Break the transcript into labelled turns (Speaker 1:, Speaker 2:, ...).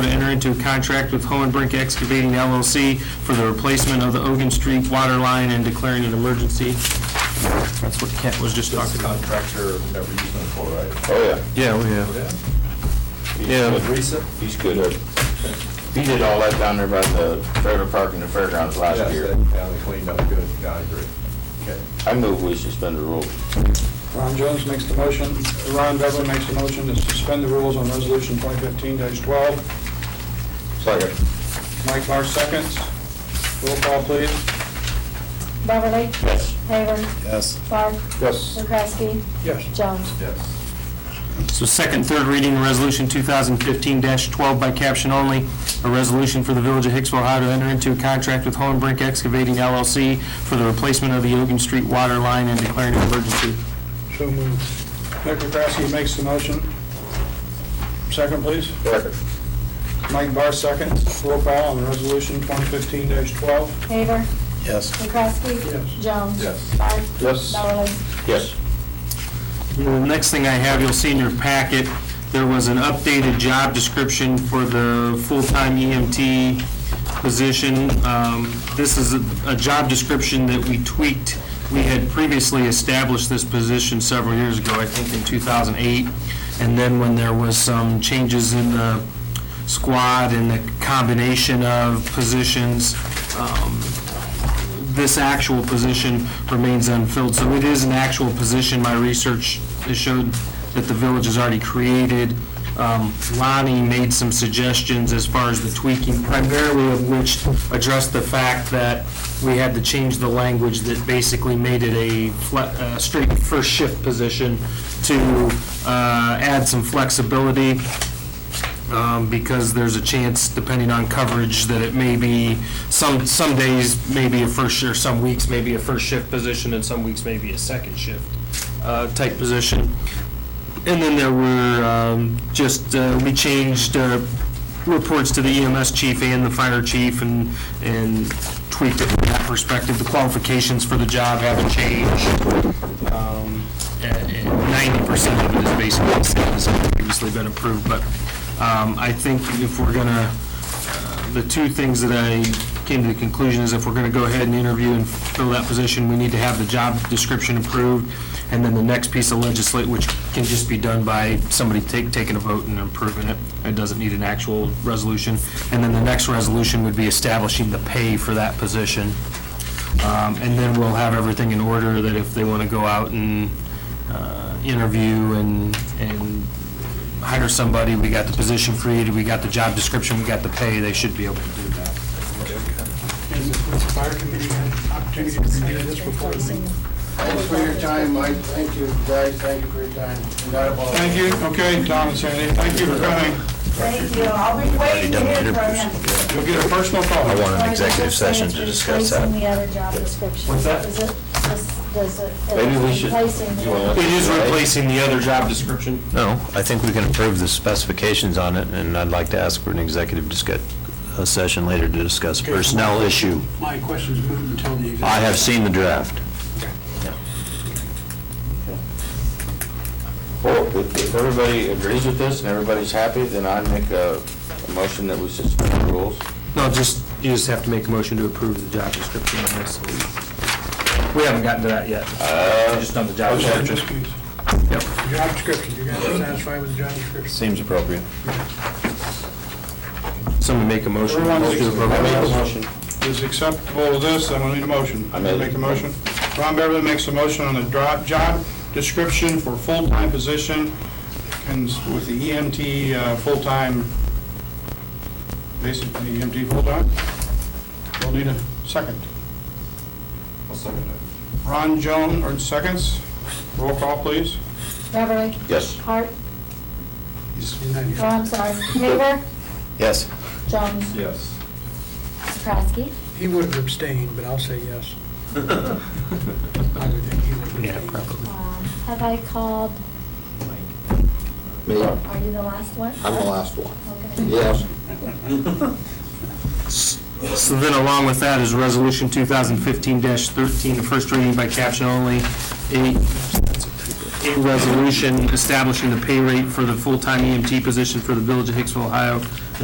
Speaker 1: into a contract with Hohenbrink Excavating LLC for the replacement of the Ogan Street water line and declaring an emergency. That's what Kent was just talking about.
Speaker 2: contractor that we're using for, right?
Speaker 3: Oh,
Speaker 1: Yeah, we have.
Speaker 3: yeah.
Speaker 1: Yeah.
Speaker 3: He's good. He's good. at- He did all that down there by the trailer park and the fairgrounds last year.
Speaker 2: Yeah, they cleaned up good, yeah, I agree. Okay.
Speaker 3: I move we suspend the rules.
Speaker 4: Ron Jones makes the motion, Ron Beverly makes the motion to suspend the rules on Resolution 2015-12.
Speaker 3: Second.
Speaker 4: Mike Barr seconds. Roll call, please.
Speaker 5: Beverly?
Speaker 3: Yes.
Speaker 5: Haver?
Speaker 6: Yes.
Speaker 5: Clark?
Speaker 3: Yes.
Speaker 5: McCrasky?
Speaker 4: Yes.
Speaker 5: Jones?
Speaker 2: Yes.
Speaker 1: So second, third reading, of Resolution 2015-12 by caption only, a resolution for the Village of Hicksville, Ohio to enter into a contract with Hohenbrink Excavating LLC for the replacement of the Ogan Street water line and declaring an emergency.
Speaker 4: So moved. Nick McCrasky makes the motion. Second, please.
Speaker 3: Second.
Speaker 4: Mike Barr seconds. Roll call on Resolution 2015-12.
Speaker 5: Haver?
Speaker 6: Yes.
Speaker 5: McCrasky?
Speaker 4: Yes.
Speaker 5: Jones?
Speaker 2: Yes.
Speaker 5: Clark?
Speaker 3: Yes.
Speaker 5: Beverly?
Speaker 3: Yes.
Speaker 1: The next thing I have, you'll see in your packet, there was an updated job description for the full-time EMT position. Um, This is a- a job description that we tweaked. We had previously established this position several years ago, I think in 2008. And then when there was some changes in the squad and the combination of positions, um, this actual position remains unfilled. So it is an actual position. My research has showed that the village has already created. Um, Lonnie made some suggestions as far as the tweaking, primarily of which addressed the fact that we had to change the language that basically made it a fle- a straight first shift position to uh, add some flexibility um, because there's a chance, depending on coverage, that it may be, some, some days may be a first shift, some weeks may be a first shift position, and some weeks may be a second shift uh, type position. And then there were um, just, uh, we changed uh, reports to the EMS chief and the fire chief and, and tweaked it from that perspective. The qualifications for the job haven't changed. Um, and- and 90% of it is basically the same as it's previously been approved, but um, I think if we're going to, the two things that I came to the conclusion is if we're going to go ahead and interview and fill that position, we need to have the job description approved, and then the next piece of legislate, which can just be done by somebody take, taking a vote and approving it. It doesn't need an actual resolution. And then the next resolution would be establishing the pay for that position. Um, And then we'll have everything in order that if they want to go out and uh, interview and, and hire somebody, we got the position created, we got the job description, we got the pay, they should be able to do that.
Speaker 7: Has the fire committee had an opportunity to review this before the meeting?
Speaker 8: Thanks for your time, Mike. Thank you, guys. Thank you for your time. And I apologize.
Speaker 4: Thank you. Okay, Tom and Sandy, thank you for coming.
Speaker 9: Thank you, I'll be waiting to hear from you.
Speaker 4: You'll get a personal call.
Speaker 5: an executive session to discuss that. Replacing the other job description. What's that? Is it, does- does it?
Speaker 3: Maybe we should-
Speaker 5: Replacing the
Speaker 3: you wanna-
Speaker 5: other.
Speaker 1: It is replacing the other job description.
Speaker 10: No, I think we can approve the specifications on it, and I'd like to ask for an executive discuss, a session later to discuss personnel issue.
Speaker 7: My question's moved until the executive.
Speaker 10: I have seen the draft.
Speaker 3: Well, if if everybody agrees with this and everybody's happy, then I make a a motion that we suspend the rules.
Speaker 1: No, just, you just have to make a motion to approve the job description on this. We haven't gotten to that yet. We just done the job
Speaker 3: okay.
Speaker 1: description. Yep.
Speaker 7: Job description, you guys are satisfied with the job description?
Speaker 6: Seems appropriate.
Speaker 1: Someone make a motion.
Speaker 4: Everyone
Speaker 1: Let's do the
Speaker 4: makes-
Speaker 1: vote.
Speaker 4: Is acceptable to this, I'm gonna need a motion.
Speaker 3: I made it.
Speaker 4: Make a motion. Ron Beverly makes a motion on the dro- job description for full-time position and s- with the EMT uh, full-time, basically EMT full-time. We'll need a second.
Speaker 2: I'll second that.
Speaker 4: Ron Jones, or seconds, roll call, please.
Speaker 5: Beverly?
Speaker 3: Yes.
Speaker 5: Hart?
Speaker 7: You're not
Speaker 5: Oh,
Speaker 7: here.
Speaker 5: I'm sorry. Haver?
Speaker 6: Yes.
Speaker 5: Jones?
Speaker 2: Yes.
Speaker 5: McCrasky?
Speaker 7: He would have abstained, but I'll say yes. I would think he would have
Speaker 1: Yeah,
Speaker 7: abstained.
Speaker 1: probably.
Speaker 5: Um, Have I called,
Speaker 3: Me?
Speaker 5: are you the last one?
Speaker 3: I'm the last one.
Speaker 5: Okay.
Speaker 3: Yes.
Speaker 1: So then along with that is Resolution 2015-13, the first reading by caption only, a a E resolution establishing the pay rate for the full-time EMT position for the Village of Hicksville, Ohio,